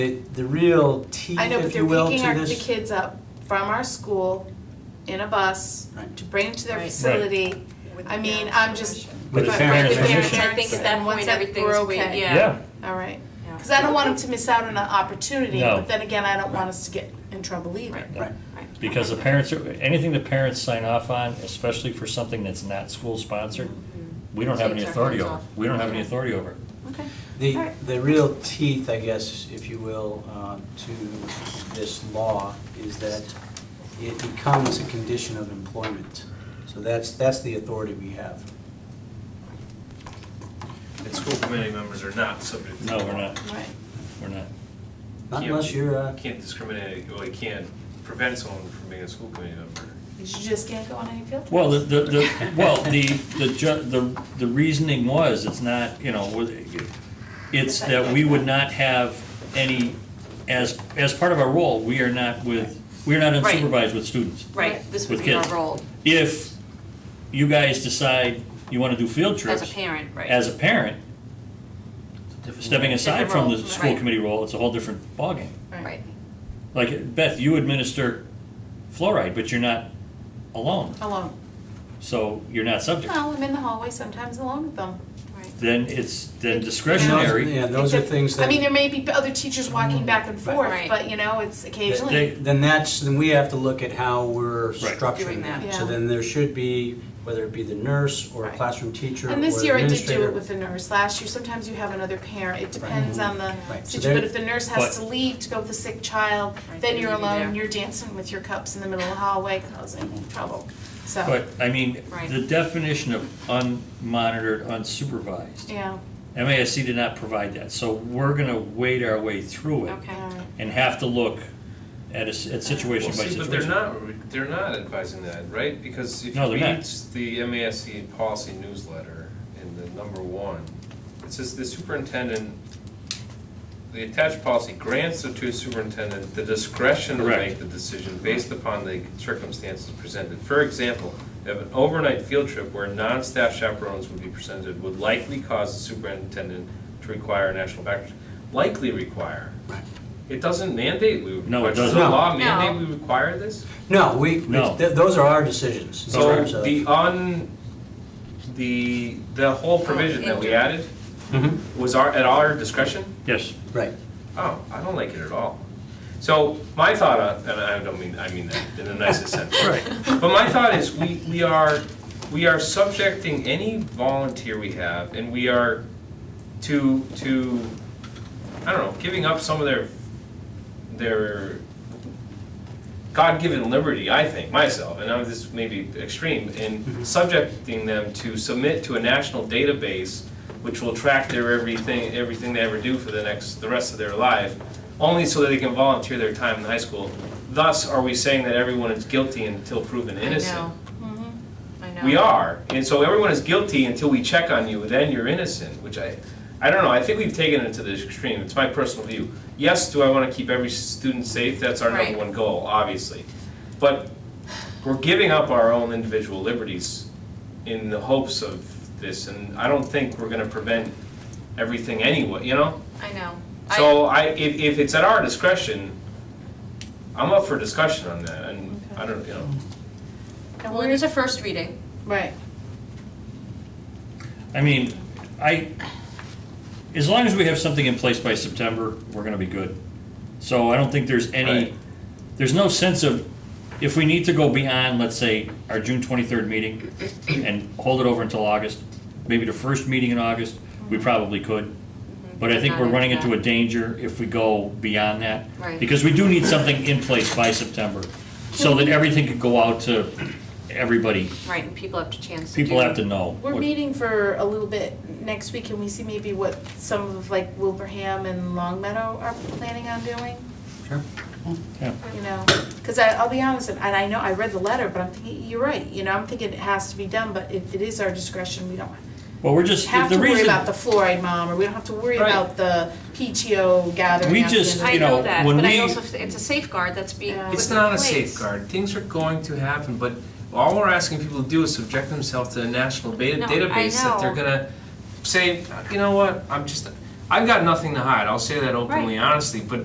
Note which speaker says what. Speaker 1: The, the real teeth,
Speaker 2: I know, but
Speaker 1: if
Speaker 2: they're
Speaker 1: you will, to
Speaker 2: picking our, the
Speaker 1: this.
Speaker 2: kids up from our school in a bus
Speaker 1: Right.
Speaker 2: to bring them to their
Speaker 3: Right. Right.
Speaker 2: facility. I mean, I'm just.
Speaker 1: With the
Speaker 2: but- but
Speaker 1: parents'
Speaker 2: the parents,
Speaker 1: permission.
Speaker 2: I think at
Speaker 3: Right.
Speaker 2: that point,
Speaker 3: Once
Speaker 2: everything's,
Speaker 3: everything's
Speaker 2: we're okay.
Speaker 3: clear, yeah.
Speaker 4: Yeah,
Speaker 2: All right.
Speaker 3: Yeah.
Speaker 2: Because I don't want them to miss out on an opportunity,
Speaker 4: No.
Speaker 2: but then again, I don't want us to get in trouble either.
Speaker 3: Right.
Speaker 1: Right.
Speaker 3: Right.
Speaker 4: because the parents, are anything the parents sign off on, especially for something that's not school-sponsored, we don't have any
Speaker 3: Takes our
Speaker 4: authority
Speaker 3: Mm-hmm. hands
Speaker 4: over.
Speaker 3: off.
Speaker 4: We don't have any
Speaker 3: Yeah.
Speaker 4: authority over. it.
Speaker 3: Okay. All
Speaker 1: The,
Speaker 3: right.
Speaker 1: the real teeth, I guess, if you will, uh, to this law is that it becomes a condition of employment. So that's, that's the authority we have.
Speaker 5: And school committee members are not subject to.
Speaker 4: No, we're not,
Speaker 2: Right.
Speaker 4: we're not.
Speaker 1: Not
Speaker 5: Can't-
Speaker 1: unless you're, uh,
Speaker 5: Can't discriminate, well, you can't prevent someone from being a school committee member.
Speaker 2: You just can't go on any field trips.
Speaker 4: Well, the, the, the, well, the, the ju, the, the reasoning was, it's not, you know, with- it's that we would not have any, as, as part of our role, we are not with, we are not
Speaker 3: Right.
Speaker 4: unsupervised with students.
Speaker 3: Right, this would
Speaker 4: With
Speaker 3: be our
Speaker 4: kids.
Speaker 3: role
Speaker 4: If you guys decide you wanna do field trips.
Speaker 3: as a parent, right?
Speaker 4: as a parent, stepping aside
Speaker 3: Different
Speaker 4: from the
Speaker 3: role,
Speaker 4: school
Speaker 3: right.
Speaker 4: committee role, it's a whole different ballgame.
Speaker 3: Right,
Speaker 4: Like, Beth, you administer fluoride, but you're not alone,
Speaker 2: Alone.
Speaker 4: so you're not subject.
Speaker 2: Well, I'm in the hallway sometimes alone with them.
Speaker 3: right.
Speaker 4: Then it's, then
Speaker 1: Those-
Speaker 4: discretionary,
Speaker 1: Yeah, those are things
Speaker 2: I
Speaker 1: that,
Speaker 2: mean, there may be other teachers walking back and forth,
Speaker 3: Right.
Speaker 2: but you know, it's
Speaker 4: They-
Speaker 2: occasionally.
Speaker 1: then that's, then we have to look at how we're
Speaker 4: Right.
Speaker 1: structuring
Speaker 3: Doing that.
Speaker 1: that.
Speaker 2: Yeah.
Speaker 1: So then there should be, whether it be the nurse or a
Speaker 3: Right.
Speaker 1: classroom teacher or
Speaker 2: And this year I did do
Speaker 1: administrator.
Speaker 2: it with the nurse. Last year, sometimes you have another parent. It depends on the
Speaker 1: Right. So
Speaker 2: situation. But
Speaker 1: there-
Speaker 2: if the nurse
Speaker 4: But-
Speaker 2: has to leave to go with the sick child,
Speaker 3: Right,
Speaker 2: then
Speaker 3: they
Speaker 2: you're
Speaker 3: leave you there.
Speaker 2: alone, you're dancing with your cups in the middle of the hallway, causing trouble. So,
Speaker 4: but, I mean,
Speaker 3: Right.
Speaker 4: the definition of unmonitored, unsupervised,
Speaker 2: yeah,
Speaker 4: MASC did not provide that, so we're gonna wade our way through it
Speaker 3: Okay.
Speaker 2: all right.
Speaker 4: and have to look at a, s- at situation
Speaker 5: Well,
Speaker 4: by
Speaker 5: see, But they're
Speaker 4: situation.
Speaker 5: not, they're not advising that, right? Because if
Speaker 4: No,
Speaker 5: you
Speaker 4: they're not.
Speaker 5: read the MASC policy newsletter in the number one, it says the superintendent, the attached policy grants the two superintendent the discretion to
Speaker 4: Correct.
Speaker 5: make the decision based upon the circumstances presented. For example, if an overnight field trip where non-staff chaperones would be presented would likely cause the superintendent to require a national background, likely require.
Speaker 1: Right.
Speaker 5: It doesn't mandate we would
Speaker 4: No, it
Speaker 5: require- Does
Speaker 4: doesn't.
Speaker 5: the law
Speaker 3: No.
Speaker 5: mandate we require this?
Speaker 1: No, we, we-
Speaker 4: No.
Speaker 1: th- those are our decisions. in
Speaker 5: So
Speaker 1: terms of-
Speaker 5: the on, the, the whole provision that we added
Speaker 1: Mhm.
Speaker 5: was our, at our discretion?
Speaker 4: Yes,
Speaker 1: Right.
Speaker 5: Oh, I don't like it at all. So my thought, on- and I don't mean, I mean that in the nicest sense. Right. But my thought is, we, we are, we are subjecting any volunteer we have, and we are to, to, I don't know, giving up some of their, their God-given liberty, I think, myself, and I'm, this may be extreme, in subjecting them to submit to a national database which will track their everything, everything they ever do for the next, the rest of their life, only so that they can volunteer their time in high school. Thus, are we saying that everyone is guilty until proven
Speaker 3: I know. Mm-hmm.
Speaker 5: innocent?
Speaker 3: I know.
Speaker 5: We are, and so everyone is guilty until we check on you, then you're innocent, which I, I don't know, I think we've taken it to the extreme, it's my personal view. Yes, do I wanna keep every student safe, that's our
Speaker 3: Right.
Speaker 5: number one goal, obviously. But we're giving up our own individual liberties in the hopes of this, and I don't think we're gonna prevent everything anyway, you know?
Speaker 3: I know.
Speaker 5: So I, if, if it's at our discretion, I'm up for discussion on that, and I don't, you know.
Speaker 3: I- Well, it is a first reading.
Speaker 2: Right.
Speaker 4: I mean, I, as long as we have something in place by September, we're gonna be good. So I don't think there's any,
Speaker 5: Right.
Speaker 4: there's no sense of, if we need to go beyond, let's say, our June twenty-third meeting and hold it over until August, maybe the first meeting in August, we
Speaker 2: Mm-hmm.
Speaker 4: probably could. But I think we're running into a danger if we go beyond that.
Speaker 3: Right.
Speaker 4: Because we do need something in place by September, so that everything could go out to everybody.
Speaker 3: Right, and people have to chance to
Speaker 4: People
Speaker 3: do-
Speaker 4: have to know.
Speaker 2: We're
Speaker 4: what-
Speaker 2: meeting for a little bit next week, and we see maybe what some of like Wilbraham and Longmeadow are planning on doing,
Speaker 1: Sure.
Speaker 4: yeah.
Speaker 2: you know? Because I, I'll be honest, and and I know, I read the letter, but I'm thinking, you're right, you know, I'm thinking it has to be done, but if it is our discretion, we don't
Speaker 4: Well, we're just,
Speaker 2: have
Speaker 4: the
Speaker 2: to worry
Speaker 4: reason,
Speaker 2: about the fluoride mom, or we don't have to worry
Speaker 5: Right.
Speaker 2: about the PTO gathering.
Speaker 4: We
Speaker 2: at the end
Speaker 4: just-
Speaker 2: of the
Speaker 3: I
Speaker 4: you
Speaker 2: day.
Speaker 4: know,
Speaker 3: know that,
Speaker 4: when
Speaker 3: but I
Speaker 4: we-
Speaker 3: also, it's a safeguard that's being
Speaker 2: Yeah.
Speaker 3: put in
Speaker 5: It's not a
Speaker 3: place.
Speaker 5: safeguard. Things are going to happen, but all we're asking people to do is subject themselves to a national beta
Speaker 3: No, I
Speaker 5: database that they're
Speaker 3: know.
Speaker 5: gonna say, you know what, I'm just, I've got nothing to hide. I'll say that openly, honestly, but